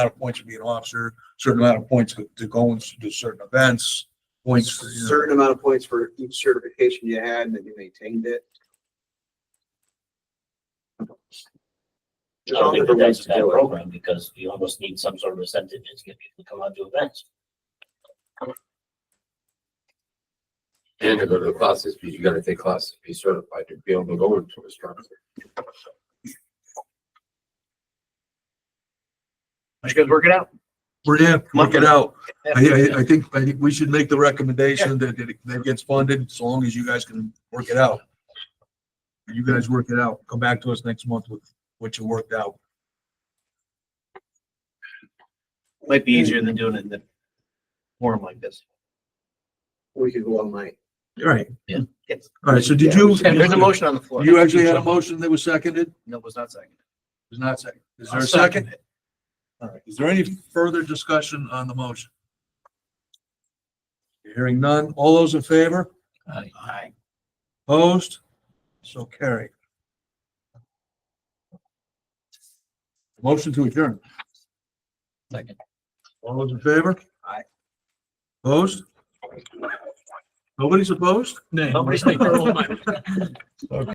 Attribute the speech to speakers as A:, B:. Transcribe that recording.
A: amount of points to be an officer, certain amount of points to- to go and do certain events, points for, you know,
B: certain amount of points for each certification you had and that you maintained it.
C: I
B: There's all
C: don't think
B: different ways
C: that's a
B: to
C: bad
B: do it.
C: program because you almost need some sort of incentive to get people to come out to events.
D: And to go to the classes, because you gotta take classes, to be certified to be able to go into instructor.
E: You guys work it out.
A: we're gonna work it out. I, I, I think, I think we should make the recommendation that, that it- that it gets funded, as long as you guys can work it out. You guys work it out, come back to us next month with what you worked out.
E: Might be easier than doing it in the forum like this.
B: We could go all night.
A: All Right.
E: Yeah.
A: All right, so did you?
E: There's a motion on the floor.
A: You actually had a motion that was seconded? It
E: No, it was not seconded.
A: was not seconded. Is there
E: I'll
A: a second?
E: it.
A: All right, is there any further discussion on the motion? Hearing none, all those in favor,
E: Aye. Aye.
A: opposed, so carried. Motion to adjourn,
C: Second.
A: all those in favor?
E: Aye.
A: Opposed? Nobody's opposed?
C: Nobody's making a rule.